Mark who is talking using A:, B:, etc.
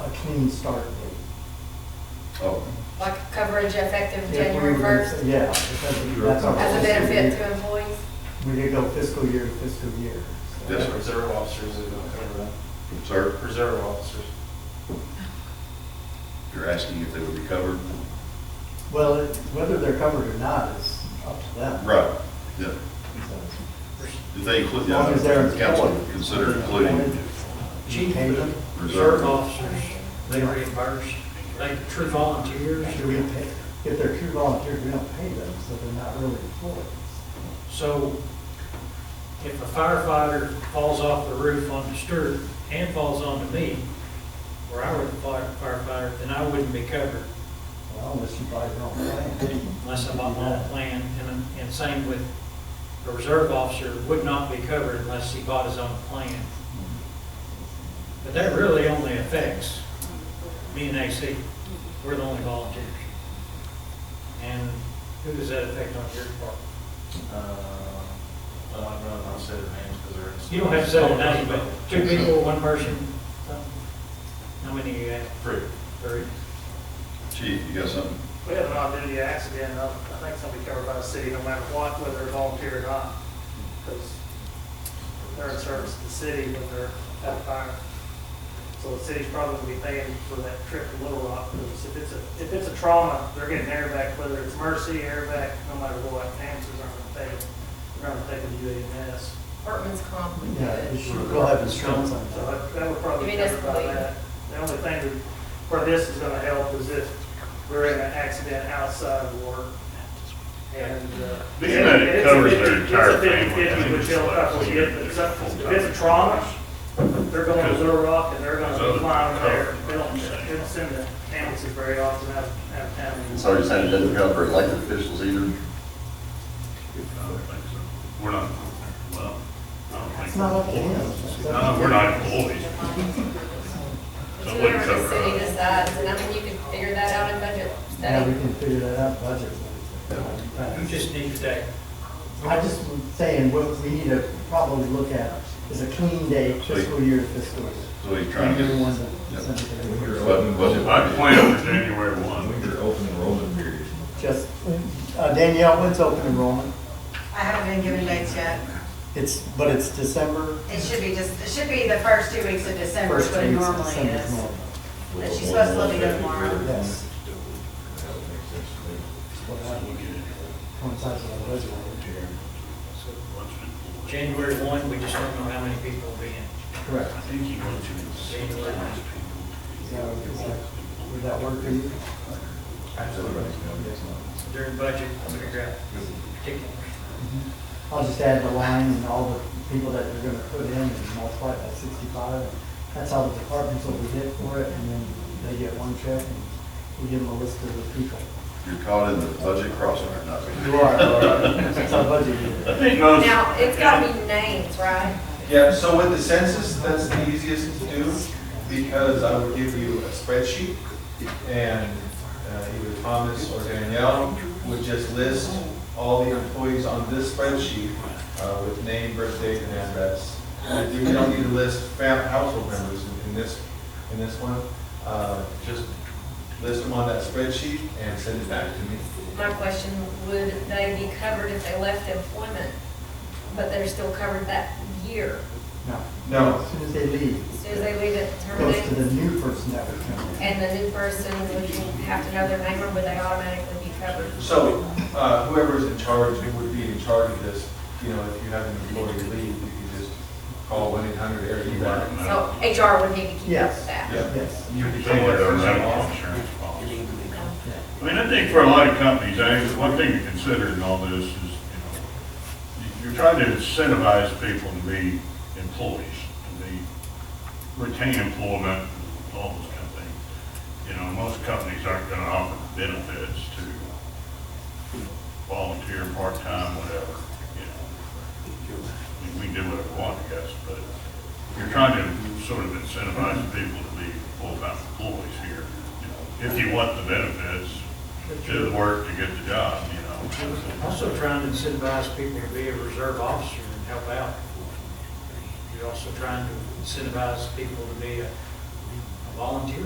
A: clean start date.
B: Oh,
C: Like coverage effective
A: If we
C: January
A: were to-
C: first
A: Yeah, because that's our.
C: as a
A: fiscal
C: benefit
A: year.
C: to employees?
A: We could go fiscal year to fiscal year. so-
B: Yes, sir.
D: Reserve officers that don't cover that.
B: sir,
D: Reserve officers.
B: you're asking if they would be covered?
A: Well, it- whether they're covered or not is up to them.
B: Right, yeah.
A: So,
B: Did they include,
A: As
B: yeah,
A: long as they're
B: the council
A: employed.
B: consider including
E: Chief,
A: Pay them?
E: the reserve officers, they reimburse, they true volunteers.
A: Do we pay, if they're true volunteers, we don't pay them, so they're not really employees.
E: So if a firefighter falls off the roof onto Stewart and falls onto me, where I were the fire- firefighter, then I wouldn't be covered
A: Well, unless you buy your own plan.
E: unless I'm on my own plan. And, and same with a reserve officer would not be covered unless he bought his own plan. But that really only affects me and AC. We're the only volunteers. And who does that affect on your part?
D: Uh, I don't know, I'll say their names because they're.
E: You don't have to say the name, but two people, one person. How many you have?
D: Three.
E: Three.
B: chief, you got something?
F: We have an odd-duty accident, I I think it's gonna be covered by the city no matter what, whether they're volunteer or not, because they're in service to the city when they're at a fire. So the city's probably gonna be paying for that trip to Little Rock, because if it's a, if it's a trauma, they're getting airback, whether it's mercy, airback, no matter what, answers aren't gonna pay, they're not gonna pay the UAMS.
C: Workman's comp would do
A: Yeah, we
C: it.
A: should- we'll have insurance on
F: So
A: that.
F: that- that would probably
C: You
F: be
C: mean that's
F: covered by
C: the lead?
F: that. The only thing that- where this is gonna help is if we're in an accident outside of work and. uh,
G: Being that it
F: it's a
G: covers
F: 50
G: their entire
F: It's a
G: family, I
F: 50/50,
G: think
F: which
G: it's
F: they'll
G: like
F: probably
G: we
F: get,
G: need
F: but it's
G: to
F: up-
G: full-time.
F: if it's a trauma, they're going to Little Rock and they're gonna
G: Because other
F: be flying there.
G: cover-
F: They don't, they don't send the ambulances very often out, out of town.
B: So you're saying it doesn't cover elected officials either?
G: I don't think so. We're not, well, I don't think.
A: It's not up to him.
G: No, we're not employees.
C: It's
G: So it
C: Whatever
G: wouldn't
C: the
G: cover
C: city
G: us.
C: decides, and I mean, you could figure that out in budget
A: Yeah, we
C: study.
A: can figure that out budget.
E: You just need today.
A: I just was saying, what we need to probably look at is a clean day fiscal year to fiscal year.
B: So he's trying to
A: Everyone's
B: get,
A: a percentage of it.
B: but,
G: I
B: but,
G: plan for January one.
H: open enrollment period.
A: Just, uh, Danielle, when's open enrollment?
I: I haven't been given dates yet.
A: It's, but it's December,
I: It should be just, it should be the first two weeks of December is
A: first
I: what
A: two
I: it
A: weeks of
I: normally
A: December.
I: is. But she's supposed to let me know tomorrow.
A: Yes. Coincides with our budget.
E: January one, we just don't know how many people will be in.
A: Correct.
G: I think he wants to.
E: January one.
A: So, is that, would that work for you?
E: During budget, we'll figure out particulars.
A: I'll just add the line and all the people that they're gonna put in and multiply it by sixty-five. That's how the departments will be hit for it, and then they get one check, and we give them a list of the people.
B: you're caught in the budget crossfire, not.
A: You are, it's our budget
G: I
A: year.
G: think most.
C: Now, it's gotta be names, right?
J: Yeah, so with the census, that's the easiest to do, because I would give you a spreadsheet, and uh, either Thomas or Danielle would just list all the employees on this spreadsheet uh, with name, birth date, and address. You don't need to list fam- household members in- in this, in this one, Uh, just list them on that spreadsheet and send it back to me.
C: My question, would they be covered if they left employment, but they're still covered that year?
A: No.
J: No.
A: As soon as they leave,
C: As soon as they leave it
A: it goes to
C: terminated,
A: the new person that would come in.
C: and the new person would have to know their name, or would they automatically be covered?
J: So uh, whoever's in charge, who would be in charge of this, you know, if you have an employee leave, you can just call one eight hundred area you want.
C: So HR would need to keep up
A: Yes.
C: with that.
J: Yeah.
A: Yes.
J: You can take that
G: Somewhere their
J: person
G: medical
J: off.
G: insurance policy. I mean, I think for a lot of companies, I think one thing to consider in all this is, you know, you- you're trying to incentivize people to be employees, to be, retain employment, all those kind of things. You know, most companies aren't gonna offer benefits to volunteer, part-time, whatever, you know. I mean, We can do whatever we want, I guess, but you're trying to sort of incentivize people to be full-time employees here, you know, if you want the benefits, do the work to get the job, you know.
E: Also trying to incentivize people to be a reserve officer and help out. You're also trying to incentivize people to be a a volunteer